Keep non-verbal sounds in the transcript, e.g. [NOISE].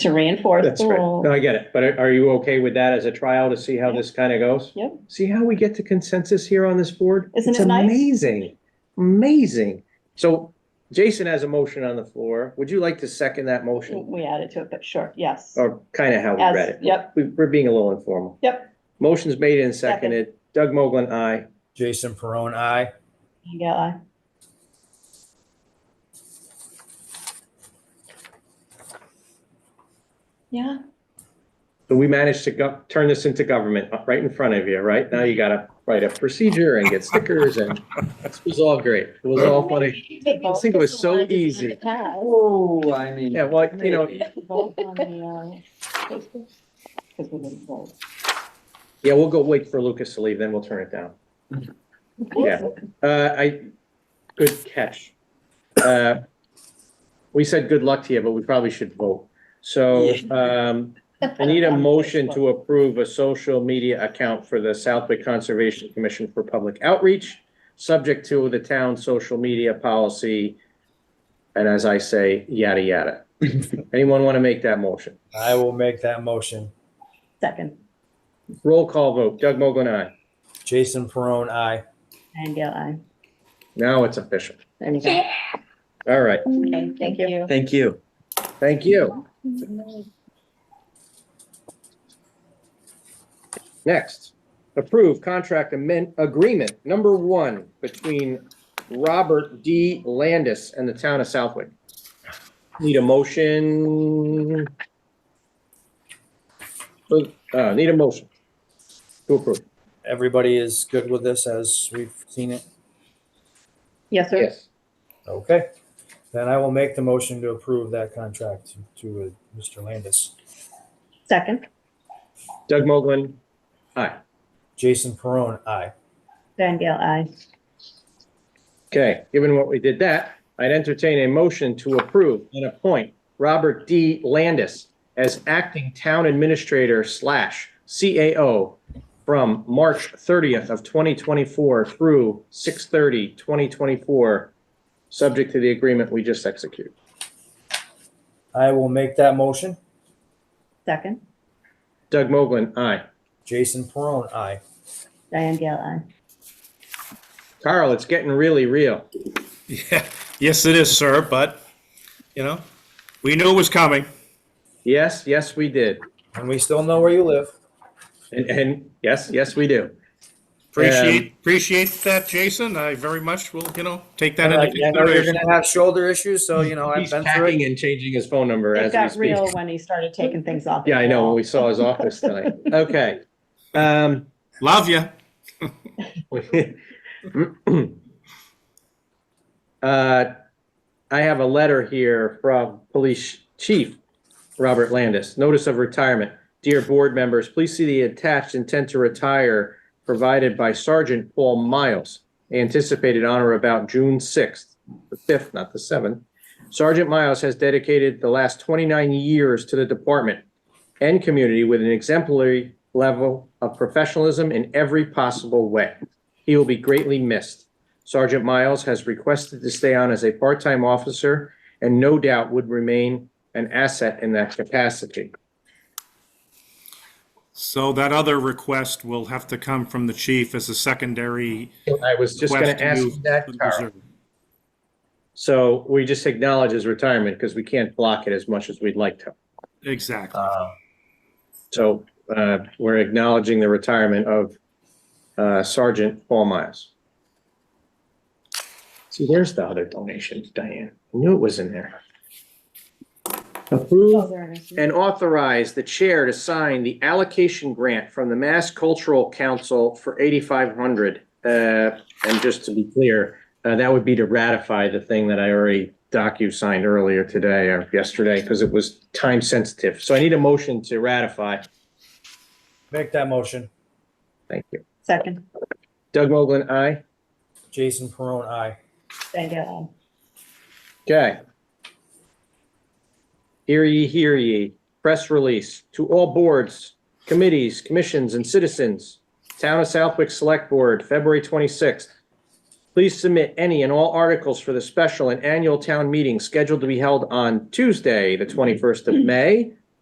to reinforce That's the right. No, rule. I get it. But are are you okay with that as a trial to see how this kind of goes? Yep. See how we get to consensus here on this board? Isn't It's it nice? Amazing, amazing. So Jason has a motion on the floor. Would you like to second that motion? We added to it, but sure, yes. Or kind of how we As- Oh, read it? yep. We- We're being a little informal. Yep. Motion's made and Second. seconded. Doug Moglen, aye. Jason Perone, I. Yeah, I- Yeah, So we managed to go, turn this into government uh, right in front of you, right? Now you gotta write a procedure and get stickers and it was all great. It was all funny. I think it was so easy. [LAUGHS] Oh, I mean. Yeah, well, you know, [LAUGHS] because uh, we didn't vote. yeah, we'll go wait for Lucas to leave, then we'll turn it down. Yeah. Uh, I, good catch. Uh, We said good luck to you, but we probably should vote. So, um, I need a motion to approve a social media account for the Southwick Conservation Commission for Public Outreach, subject to the town's social media policy. And as I say, yada, yada. Anyone want to make that motion? I will make that motion. Second, Roll call vote. Doug Mogul, aye. Jason Perone, I. and yeah, I, Now it's official. there you go. All right. Okay, thank you. Thank you. Thank you. Next, approve contract amend, agreement number one between Robert D. Landis and the town of Southwick. Need a motion? Uh, need a motion to approve. Everybody is good with this as we've seen it? Yes, sir. Yes. Okay. Then I will make the motion to approve that contract to- to uh, Mr. Landis. Second, Doug Moglen, aye. Jason Perone, I. Van Gale, I. Okay, given what we did that, I'd entertain a motion to approve and appoint Robert D. Landis as acting town administrator slash CAO from March thirtieth of twenty twenty-four through 2024, subject to the agreement we just executed. I will make that motion. Second, Doug Moglen, aye. Jason Perone, I. Diane Gale, I. Carl, it's getting really real. Yeah, yes, it is, sir, but, you know, we knew it was coming. Yes, yes, we did. And we still know where you live. And, and yes, yes, we do. Appreciate, appreciate that, Jason. I very much will, you know, take that And I into I know you're consideration. gonna have shoulder issues, so you know, I've He's been through it. packing and changing his phone number It as we got speak. real when he started taking things off. Yeah, I know, when we saw his office tonight. Okay. Um, Love you. [LAUGHS] uh, I have a letter here from Police Chief Robert Landis, notice of retirement. Dear board members, please see the attached intent to retire provided by Sergeant Paul Miles, anticipated on or about June sixth, the fifth, not the seventh. Sergeant Miles has dedicated the last twenty-nine years to the department and community with an exemplary level of professionalism in every possible way. He will be greatly missed. Sergeant Miles has requested to stay on as a part-time officer and no doubt would remain an asset in that capacity. So that other request will have to come from the chief as a secondary. I was just going request to ask you you that, would Carl. reserve. So we just acknowledge his retirement because we can't block it as much as we'd like to. Exactly. Uh, So uh, we're acknowledging the retirement of uh, Sergeant Paul Miles. See, there's the other donation, Diane. I knew it was in there. Approve and authorize the chair to sign the allocation grant from the Mass Cultural Council for eighty-five hundred. Uh, and just to be clear, uh, that would be to ratify the thing that I already docu-signed earlier today or yesterday because it was time sensitive. So I need a motion to ratify. Make that motion. Thank you. Second, Doug Moglen, aye. Jason Perone, I. Van Gale, Okay. Hear ye, hear ye. Press release to all boards, committees, commissions, and citizens. Town of Southwick Select Board, February 26th. Please submit any and all articles for the special and annual town meeting scheduled to be held on Tuesday, the 21st of May,